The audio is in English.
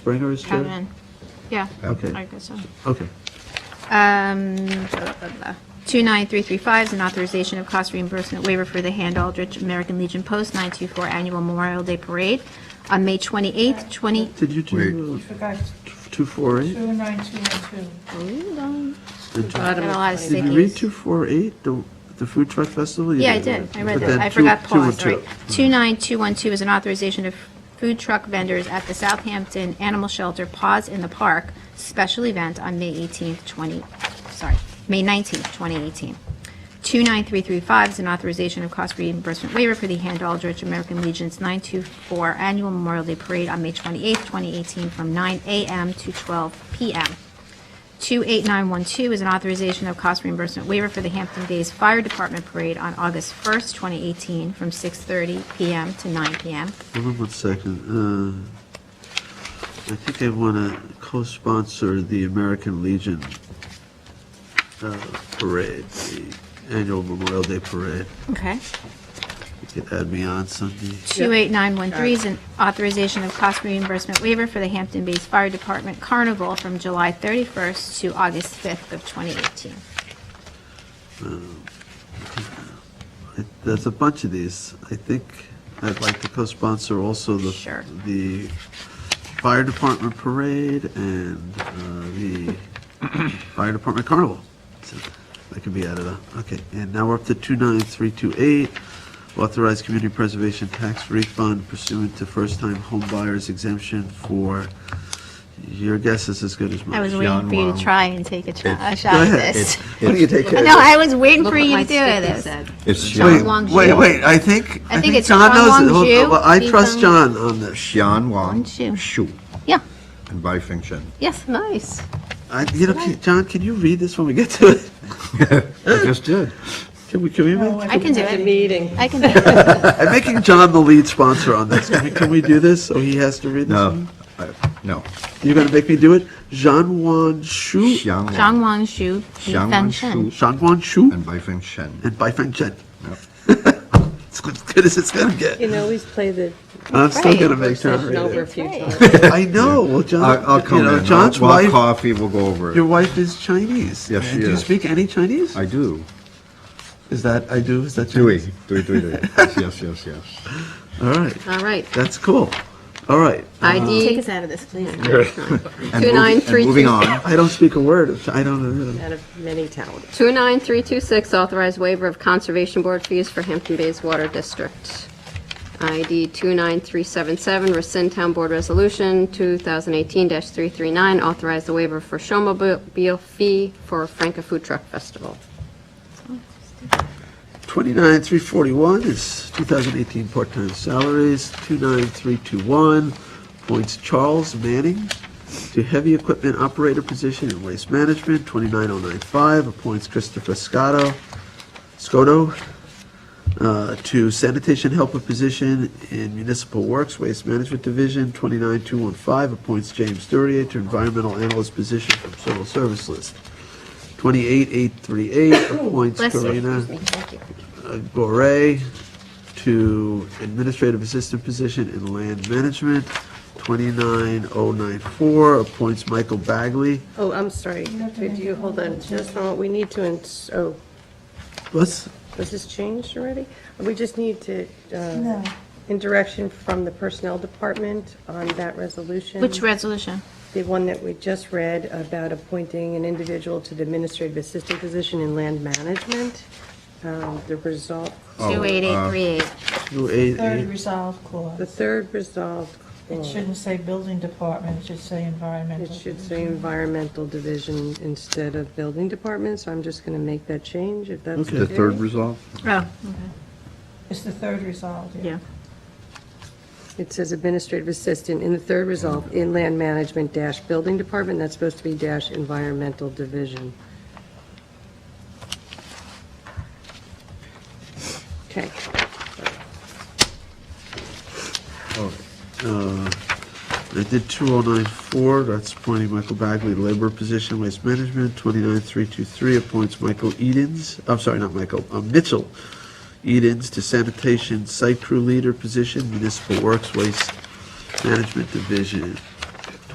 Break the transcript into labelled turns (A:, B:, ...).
A: Bringer is
B: Come
A: chair?
B: in. Yeah, I
A: Okay,
B: guess so.
A: okay.
B: Um, blah, blah, blah. 29335 is an authorization of cost reimbursement waiver for the Hand Aldrich American Legion Post 924 Annual Memorial Day Parade on May 28th, 20,
A: Did you do
C: You forgot
A: uh, t- 248?
C: 29212.
B: hold on.
A: Did you-
B: Got a lot of
A: Did you read
B: sickies.
A: 248, the the food truck festival? You
B: Yeah, I did, I read
A: But
B: that,
A: then
B: I
A: two-
B: forgot pause,
A: 202.
B: sorry. 29212 is an authorization of food truck vendors at the Southampton Animal Shelter Paws in the Park special event on May 18th, 20, sorry, May 19th, 2018. 29335 is an authorization of cost reimbursement waiver for the Hand Aldrich American Legion's 924 Annual Memorial Day Parade on May 28th, 2018, from 9 a.m. to 12 p.m. 28912 is an authorization of cost reimbursement waiver for the Hampton Bays Fire Department Parade on August 1st, 2018, from 6:30 PM to 9 PM.
A: Hold on one second. Uh, I think I want to co-sponsor the American Legion uh, parade, the annual Memorial Day parade.
B: Okay.
A: You could add me on Sunday.
B: 28913 is an authorization of cost reimbursement waiver for the Hampton Bays Fire Department Carnival from July 31st to August 5th of 2018.
A: I- There's a bunch of these. I think I'd like to co-sponsor also the.
B: Sure.
A: The fire department parade and uh, the fire department carnival. So That can be added on. Okay, and now we're up to 29328, authorized community preservation tax refund pursuant to first-time home buyers exemption for, your guess is as good as mine.
B: I was
D: John
B: waiting for you
D: Wong.
B: to try and take a try- a
A: Go
B: shot at
A: ahead.
B: this.
A: Why do you take it?
B: No, I was waiting for
E: what
B: you
E: my
B: to do it.
E: sticky
B: It's-
E: said.
D: It's
A: Wait,
D: Xian,
B: Wang
A: wait,
B: Zhu.
A: wait, I think, I
B: think
A: think
B: it's
A: John
B: Huang
A: knows it.
B: Wang
A: Hold-
B: Zhu,
A: well, I
B: Li
A: trust
B: Feng-
A: John on this.
D: Xian Wang
B: Shu.
D: Shu
B: Yeah,
D: and Bai Feng Shen.
E: Yes, nice.
A: I, you know, can- John, can you read this when we get to it?
D: I just did.
A: Can we, can we, make-
B: I can do
E: The
B: it.
E: meeting.
B: I can do it.
A: I'm making John the lead sponsor on this. Can we, can we do this? So he has to read this?
D: No, I- Uh, no.
A: You're gonna make me do it? Zhang Wan Shu,
D: Xian
B: Zhang
D: Wang
B: Wang Shu, Li
D: Zhang
B: Feng
D: Wang
B: Shen.
D: Shu.
A: Zhang Wan Shu,
D: and Bai Feng Shen.
A: and Bai Feng Chen.
D: Yep.
A: It's good- as good as it's gonna get.
E: can always play the
A: I'm still
B: Right.
A: gonna
E: work
A: make John
E: session
A: read
E: over a
A: it.
E: few times.
A: I know, well, John,
D: I- I'll
A: you
D: come
A: know,
D: in, I'll-
A: John's
D: we'll have
A: wife,
D: coffee, we'll go over
A: your
D: it.
A: wife is Chinese.
D: Yes, she
A: Do you
D: is.
A: speak any Chinese?
D: I do.
A: Is that, I do, is that
D: Dewey,
A: Chinese?
D: Dewey, Dewey, Dewey. Yes, yes, yes, yes.
A: All right,
E: All right.
A: that's cool. All right.
B: Take
E: ID
B: us out of this, please.
D: And moving- Uh-huh. and
E: 2932.
D: Moving on,
A: I don't speak a word of, Chi- I don't, uh,
E: out of many towns. 29326, authorized waiver of Conservation Board fees for Hampton Bays Water District. ID 29377, rescind Town Board Resolution 2018-339, authorize the waiver for showmobile fee for Franca Food Truck Festival.
A: 29341 is 2018 part-time salaries, 29321 points Charles Manning to heavy equipment operator position in waste management, 29095 appoints Christopher Scotto, Scotto uh, to sanitation helper position in municipal works, waste management division, 29215 appoints James Durier to environmental analyst position from civil service list, 28838 appoints
B: Bless you.
A: Karina. Gore to administrative assistant position in land management. 29094 appoints Michael Bagley.
F: Oh, I'm sorry. Did you, hold on, just a moment. We need to, ins- oh,
A: Let's,
F: was this changed already? We just need to, uh,
C: No.
F: in direction from the Personnel Department on that resolution.
B: Which resolution?
F: The one that we just read about appointing an individual to the administrative assistant position in land management. Um, The result,
B: 28838.
A: 288.
C: Third resolve clause.
F: the third resolved
C: It
F: clause,
C: shouldn't say building department, it should say environmental.
F: Oh. it should say environmental division instead of building department, so I'm just going to make that change if that's okay.
D: the third resolve.
B: Oh,
C: It's the third resolve,
B: yeah.
C: yeah.
F: It says administrative assistant in the third resolve, in land management dash building department, that's supposed to be dash environmental division. Okay,
A: I did 2094, that's appointing Michael Bagley, labor position, waste management. 29323 appoints Michael Edens, I'm sorry, not Michael, uh, Mitchell Edens to sanitation site crew leader position, municipal works, waste management division.